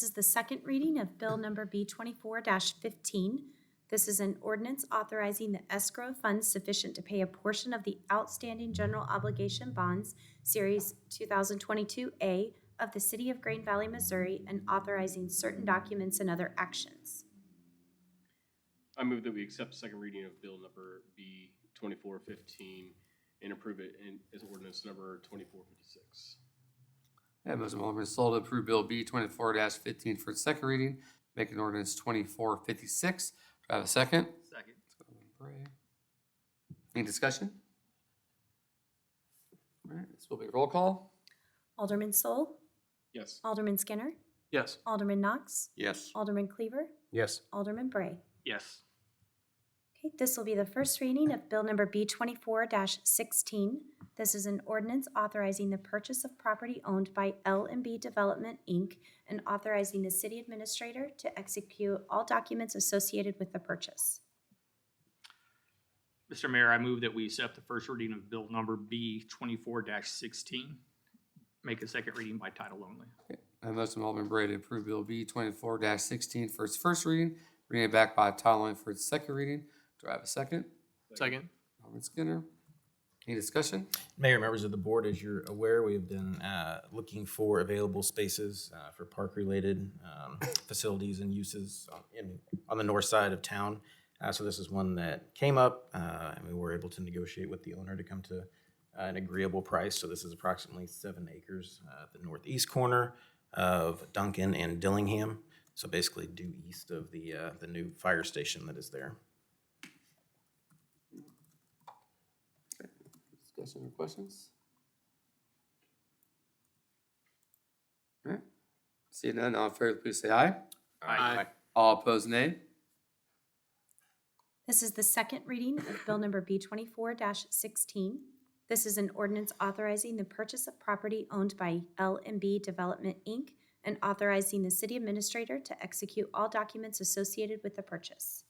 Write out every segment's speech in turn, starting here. This is the second reading of Bill Number B24-15. This is an ordinance authorizing the escrow funds sufficient to pay a portion of the outstanding general obligation bonds, Series 2022A, of the City of Green Valley, Missouri, and authorizing certain documents and other actions. I move that we accept second reading of bill number B twenty-four fifteen and approve it in, as ordinance number twenty-four fifty-six. I have a motion by Alderman Sol to approve Bill B twenty-four fifteen for its second reading, make an ordinance twenty-four fifty-six. Do I have a second? Second. Any discussion? All right, this will be a roll call. Alderman Sol, Yes. Alderman Skinner, Yes. Alderman Knox, Yes. Alderman Cleaver, Yes. Alderman Bray. Yes. Okay, this will be the first reading of Bill Number B twenty-four sixteen. This is an ordinance authorizing the purchase of property owned by L and B Development, Inc. and authorizing the city administrator to execute all documents associated with the purchase. Mr. Mayor, I move that we accept the first reading of bill number B twenty-four sixteen. Make a second reading by title only. I have a motion by Alderman Bray to approve Bill B twenty-four sixteen for its first reading, bring it back by title only for its second reading. Do I have a second? Second. Alderman Skinner? Any discussion? Mayor, members of the board, as you're aware, we have been uh, looking for available spaces uh, for park-related um, facilities and uses on- in, on the north side of town. Uh, So this is one that came up, uh, and we were able to negotiate with the owner to come to uh, an agreeable price. So this is approximately seven acres uh, at the northeast corner of Duncan and Dillingham. So basically due east of the, uh, the new fire station that is there. Discussion or questions? All right. Seeing none, all in favor, please say aye. Aye. All opposed, nay. This is the second reading of Bill Number B twenty-four sixteen. This is an ordinance authorizing the purchase of property owned by L and B Development, Inc. and authorizing the city administrator to execute all documents associated with the purchase.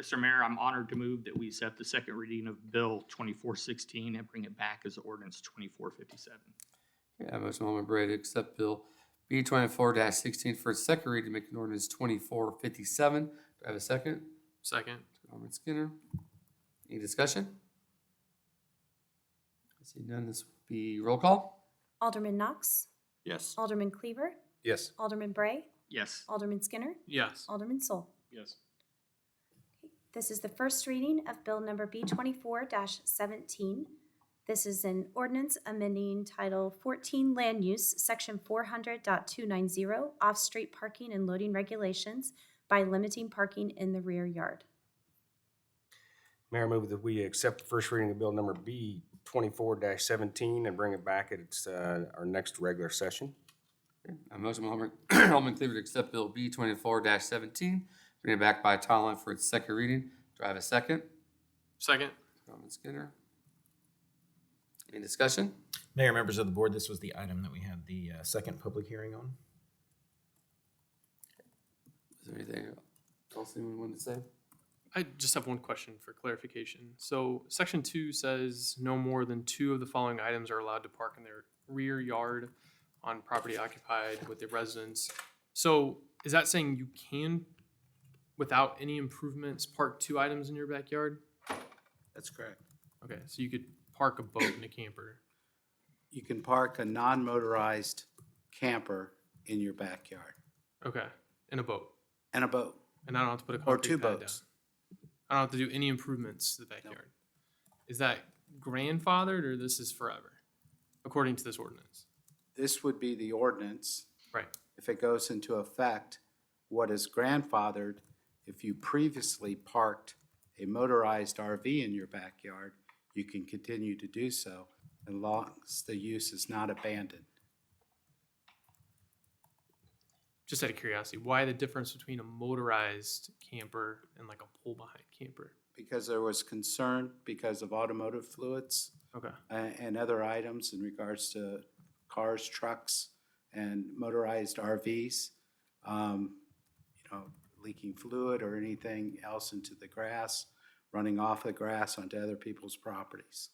Mr. Mayor, I'm honored to move that we accept the second reading of bill twenty-four sixteen and bring it back as ordinance twenty-four fifty-seven. Yeah, motion by Alderman Bray to accept Bill B twenty-four sixteen for its second reading, making ordinance twenty-four fifty-seven. Do I have a second? Second. Alderman Skinner. Any discussion? I see none, this will be roll call. Alderman Knox? Yes. Alderman Cleaver? Yes. Alderman Bray? Yes. Alderman Skinner? Yes. Alderman Sol? Yes. This is the first reading of Bill Number B twenty-four seventeen. This is an ordinance amending Title fourteen Land Use, Section 400.290, off-street parking and loading regulations by limiting parking in the rear yard. Mayor, I move that we accept the first reading of bill number B twenty-four seventeen and bring it back at its, uh, our next regular session. A motion by Alderman- Alderman Cleaver to accept Bill B twenty-four seventeen, bring it back by title only for its second reading. Do I have a second? Second. Alderman Skinner. Any discussion? Mayor, members of the board, this was the item that we had the uh, second public hearing on. Is there anything else anyone wanted to say? I just have one question for clarification. So, section two says no more than two of the following items are allowed to park in their rear yard on property occupied with the residents. So, is that saying you can, without any improvements, park two items in your backyard? That's correct. Okay, so you could park a boat and a camper. You can park a non-motorized camper in your backyard Okay, and a boat. and a boat. And I don't have to put a Or concrete two pad boats. down. I don't have to do any improvements to the backyard. Is that grandfathered or this is forever, according to this ordinance? This would be the ordinance, Right. if it goes into effect, what is grandfathered, if you previously parked a motorized RV in your backyard, you can continue to do so as long as the use is not abandoned. Just out of curiosity, why the difference between a motorized camper and like a pull behind camper? Because there was concern because of automotive fluids Okay. a- uh, and other items in regards to cars, trucks, and motorized RVs. um, You know, leaking fluid or anything else into the grass, running off the grass onto other people's properties.